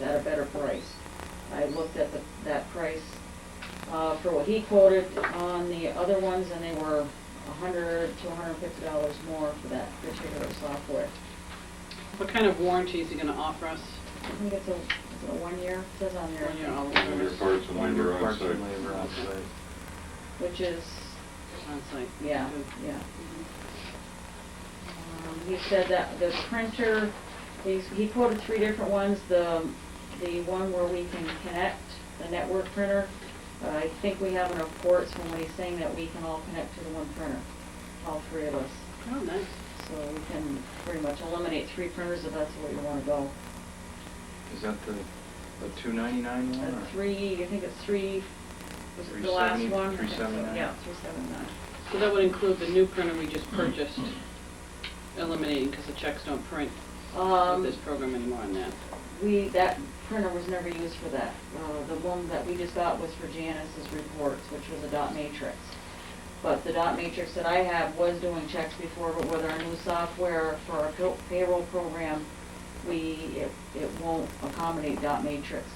better price. I looked at the, that price, uh, for what he quoted on the other ones, and they were a hundred to hundred and fifty dollars more for that particular software. What kind of warranty is he gonna offer us? I think it's a, is it a one year, It says on there, One year, all When your parts and When labor your on parts site. and labor on site. which is, on site. yeah, Good. yeah. Mhm. Um, He said that the printer, he's, he quoted three different ones, the, the one where we can connect, the network printer. Uh, I think we have in our reports from what he's saying that we can all connect to the one printer, all three of us. Oh, nice. So we can pretty much eliminate three printers if that's where you wanna go. Is that the, the two ninety-nine one Uh, or? Three, I think it's three, was it the last 370, one? I think so. 379. Yeah, three seven nine. So that would include the new printer we just purchased, eliminating, because the checks don't print Um, with this program anymore on that. We, that printer was never used for that. Uh, The one that we just got was for Janice's reports, which was a dot matrix. But the dot matrix that I have was doing checks before, but with our new software for our pay- payroll program, we, it, it won't accommodate dot matrix,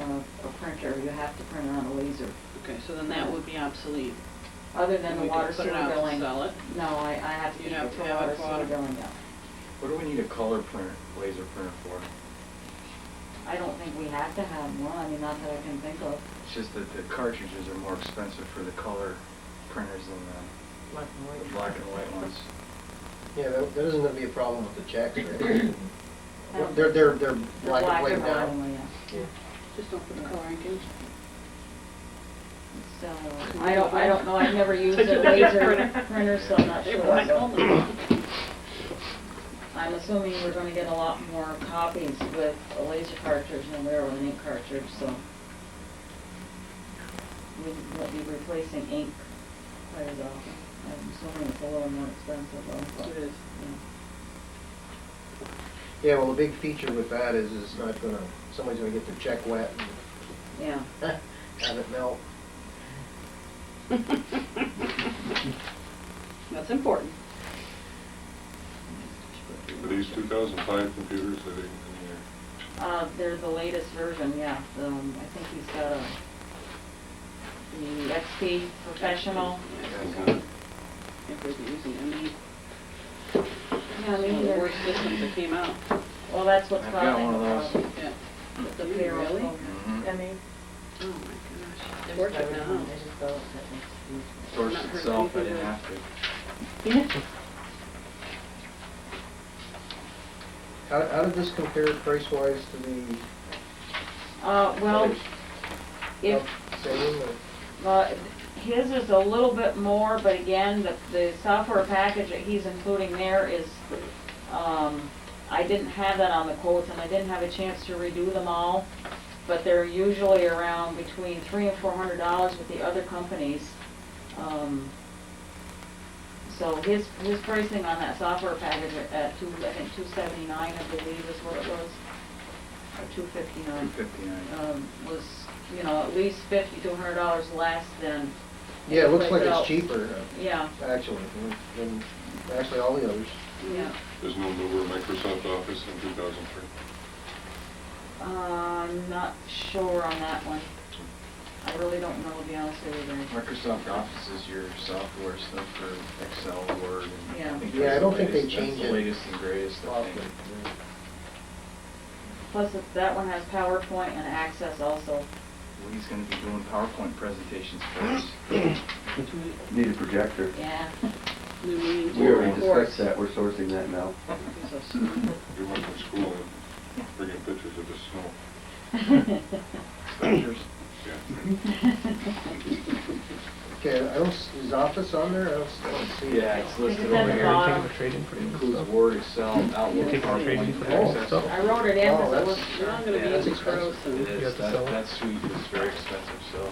uh, a printer. You have to print it on a laser. Okay, so then that would be obsolete. Other than the We could water put sewer it out to billing. sell it. No, I, I have to You'd keep have it to for have water it for sewer water. billing now. What do we need a color printer, laser printer for? I don't think we have to have one, I mean, not that I can think of. It's just that the cartridges are more expensive for the color printers than Black and the, white. the black and white ones. Yeah, that, that isn't gonna be a problem with the checks, Um, right? They're, they're, they're black and white Black and now. white, yeah. Just don't put the color ink in. So, I don't, I don't know, I've never used a laser printer, so I'm not They were all sure. I'm assuming we're gonna get a lot more copies with a laser cartridge than we are with an ink cartridge, so. We won't be replacing ink quite as often. I'm assuming it's a little more expensive though, but. It is. yeah. Yeah, well, the big feature with that is it's not gonna, somebody's gonna get their check wet Yeah. and have it melt. That's important. Are these 2005 computers that are in here? Uh, they're the latest version, yeah. Um, I think he's got a, the XP Professional. Yeah, If we're using them, these- Oh, Yeah, one of the worst systems that came out. Well, that's what's I've got causing one of the those. problem. Yeah. with The You payroll really? program. I Mhm. mean, Oh, my gosh. there's They work it everyone, now. they just go up that next week. Source Not hurt itself, I didn't anything. have to. How, how did this compare price-wise to the? Uh, well, others? if, About Same or? uh, his is a little bit more, but again, the, the software package that he's including there is, um, I didn't have that on the quotes and I didn't have a chance to redo them all, but they're usually around between three and four hundred dollars with the other companies. Um, so his, his pricing on that software package at- at two, I think two seventy-nine, I believe is what it was, or two fifty-nine. 259. um, was, you know, at least fifty to a hundred dollars less than. Yeah, it looks like Without- it's cheaper, Yeah, uh, actually, than- than, actually all the others. yeah. There's no newer Microsoft Office in 2003. Uh, I'm not sure on that one. I really don't know, to be honest with you. Greg. Microsoft Office is your software stuff for Excel, Word, and Yeah. I think Yeah, I that's the don't think they latest- change That's it the latest and greatest, I think. Often, yeah. Plus, if that one has PowerPoint and Access also. Well, He's gonna be doing PowerPoint presentations for us. Need a projector. Yeah. New meeting. We already Reports. discussed that, we're sourcing that now. This is so smart. We went from school and bringing pictures of the snow. Pictures. Yeah. Okay, I don't, s- is office on there? I don't, s- I don't see it. Yeah, it's listed It's at over the here. bottom. Includes Word, Excel, Outlook, Take your trade PowerPoint, in for that Access. stuff. I wrote it in Oh, because I that's- wasn't sure. I'm gonna Yeah, be that's using expensive. gross It and is, that, that suite is very expensive, so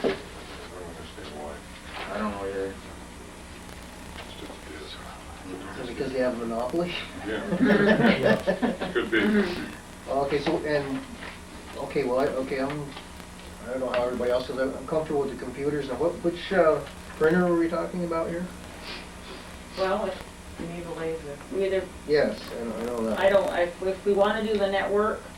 I don't understand why. I don't know where. It's just it is. Is it because they have a monopoly? Yeah. Could be. Okay, so, and, okay, well, I, okay, I'm, I don't know how everybody else is, I'm I'm comfortable with the computers, now what, which, uh, printer were we talking about here? Well, if You need a laser. we either, Yes, I know, I know that. I don't, if, if we wanna do the network,